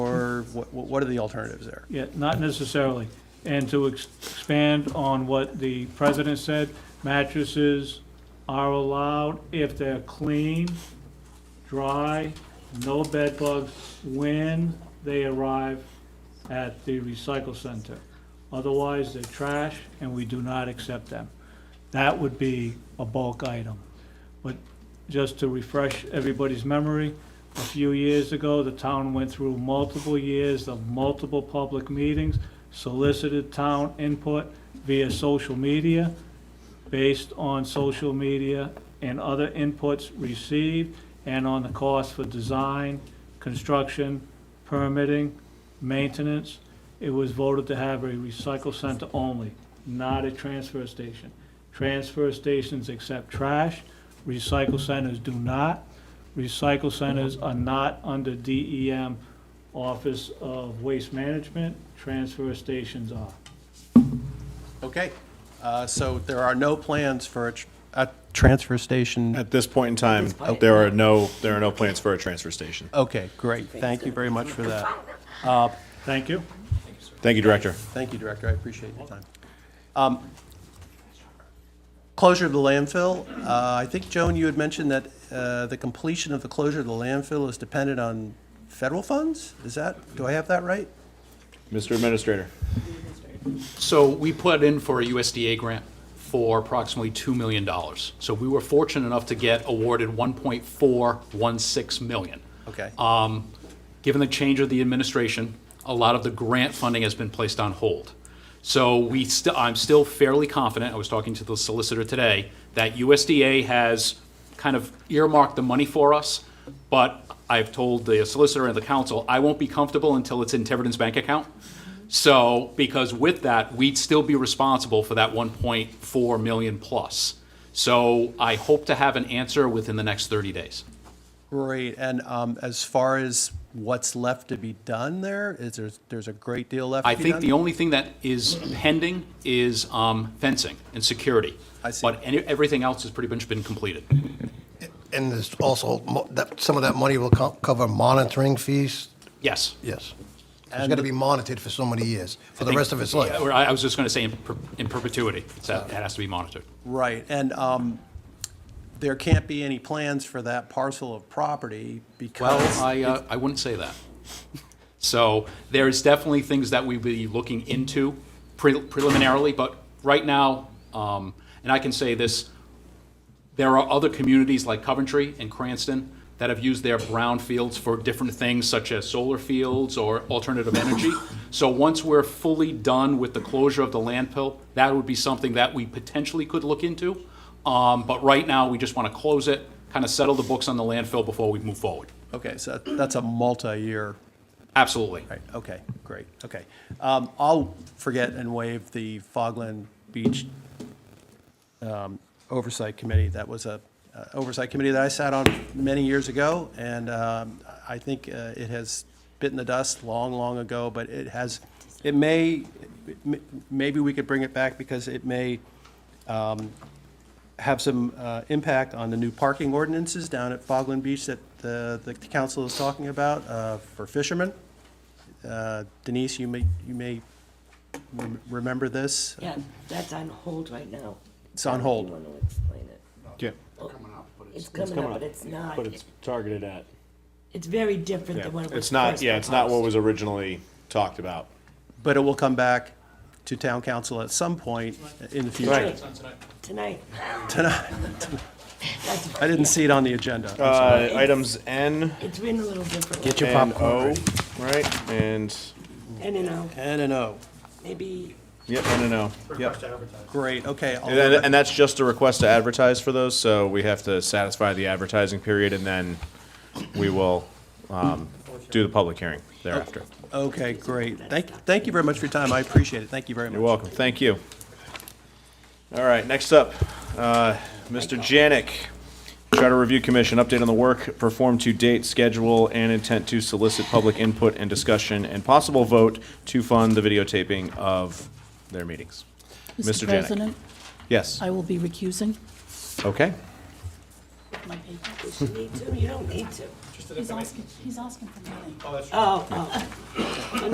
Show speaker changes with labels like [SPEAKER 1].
[SPEAKER 1] or what, what what are the alternatives there?
[SPEAKER 2] Yeah, not necessarily. And to ex- expand on what the president said, mattresses are allowed if they're clean, dry, no bed bugs when they arrive at the recycle center. Otherwise, they're trash and we do not accept them. That would be a bulk item. But just to refresh everybody's memory, a few years ago, the town went through multiple years of multiple public meetings, solicited town input via social media. Based on social media and other inputs received, and on the cost for design, construction, permitting, maintenance, it was voted to have a recycle center only, not a transfer station. Transfer stations accept trash, recycle centers do not. Recycle centers are not under DEM Office of Waste Management, transfer stations are.
[SPEAKER 1] Okay, uh, so there are no plans for a, tr- a transfer station.
[SPEAKER 3] At this point in time, there are no, there are no plans for a transfer station.
[SPEAKER 1] Okay, great, thank you very much for that.
[SPEAKER 2] Thank you.
[SPEAKER 3] Thank you, Director.
[SPEAKER 1] Thank you, Director, I appreciate your time. Um, Closure of the landfill, uh, I think, Joan, you had mentioned that uh, the completion of the closure of the landfill is dependent on federal funds? Is that, do I have that right?
[SPEAKER 3] Mr. Administrator.
[SPEAKER 4] So we put in for a USDA grant for approximately $2 million. So we were fortunate enough to get awarded 1.416 million.
[SPEAKER 1] Okay.
[SPEAKER 4] Given the change of the administration, a lot of the grant funding has been placed on hold. So we, st- I'm still fairly confident, I was talking to the solicitor today, that USDA has kind of earmarked the money for us, but I've told the solicitor and the council, I won't be comfortable until it's in Tiverton's bank account. So, because with that, we'd still be responsible for that 1.4 million plus. So I hope to have an answer within the next 30 days.
[SPEAKER 1] Great, and um, as far as what's left to be done there, is there, there's a great deal left
[SPEAKER 4] I
[SPEAKER 1] to be done?
[SPEAKER 4] think the only thing that is pending is um, fencing and security.
[SPEAKER 1] I see.
[SPEAKER 4] But any- everything else has pretty much been completed.
[SPEAKER 5] And there's also, mo- that, some of that money will co- cover monitoring fees?
[SPEAKER 4] Yes.
[SPEAKER 5] Yes. It's gonna be monitored for so many years, for the rest of its
[SPEAKER 4] Yeah,
[SPEAKER 5] life.
[SPEAKER 4] or I I was just going to say in per- in perpetuity. It's that- That has to be monitored.
[SPEAKER 1] Right, and um, there can't be any plans for that parcel of property
[SPEAKER 4] Well,
[SPEAKER 1] because,
[SPEAKER 4] I, uh, I wouldn't say that. So there is definitely things that we'll be looking into pre- preliminarily, but right now, um, and I can say this, there are other communities like Coventry and Cranston that have used their brown fields for different things such as solar fields or alternative energy. So once we're fully done with the closure of the landfill, that would be something that we potentially could look into. Um, but right now, we just want to close it, kind of settle the books on the landfill before we move forward.
[SPEAKER 1] okay, so that's a multi-year,
[SPEAKER 4] Absolutely.
[SPEAKER 1] right, okay, great, okay. Um, I'll forget and waive the Fogland Beach um, Oversight Committee. That was a uh, oversight committee that I sat on many years ago, and um, I think uh, it has bitten the dust long, long ago, but it has, it may, m- maybe we could bring it back because it may have some uh, impact on the new parking ordinances down at Fogland Beach that the, the council is talking about uh, for fishermen. Uh, Denise, you may, you may rem- remember this.
[SPEAKER 6] Yeah, that's on hold right now.
[SPEAKER 1] It's on hold.
[SPEAKER 6] If you want to explain it.
[SPEAKER 3] Yeah.
[SPEAKER 6] It's coming up, but it's not.
[SPEAKER 7] But it's targeted at.
[SPEAKER 6] It's very different than what it was.
[SPEAKER 3] It's not,
[SPEAKER 6] first
[SPEAKER 3] yeah, it's not what
[SPEAKER 6] proposed.
[SPEAKER 3] was originally talked about.
[SPEAKER 1] But it will come back to town council at some point in the future.
[SPEAKER 6] Tonight.
[SPEAKER 1] I didn't see it on the agenda. I'm sorry.
[SPEAKER 3] Uh, items N
[SPEAKER 6] It's written a little differently.
[SPEAKER 5] Get your
[SPEAKER 3] and
[SPEAKER 5] popcorn
[SPEAKER 3] O,
[SPEAKER 5] ready.
[SPEAKER 3] right? And,
[SPEAKER 6] And, you know,
[SPEAKER 1] N and O.
[SPEAKER 6] maybe
[SPEAKER 3] yep, N and O. Yep.
[SPEAKER 1] Great, okay. I'll-
[SPEAKER 3] And, then- and that's just a request to advertise for those, so we have to satisfy the advertising period and then we will, um, do the public hearing thereafter.
[SPEAKER 1] Okay, great. Thank, thank you very much for your time. I appreciate it. Thank you very much.
[SPEAKER 3] You're welcome. Thank you. All right, next up, uh, Mr. Janik, Charter Review Commission, update on the work performed to date, schedule, and intent to solicit public input and discussion and possible vote to fund the videotaping of their meetings. Mr. Janik.
[SPEAKER 8] President,
[SPEAKER 3] Yes,
[SPEAKER 8] I will be recusing
[SPEAKER 3] okay.
[SPEAKER 8] my paper.
[SPEAKER 6] you need to, you don't need to.
[SPEAKER 8] He's asking, he's asking for money.
[SPEAKER 6] Oh, oh,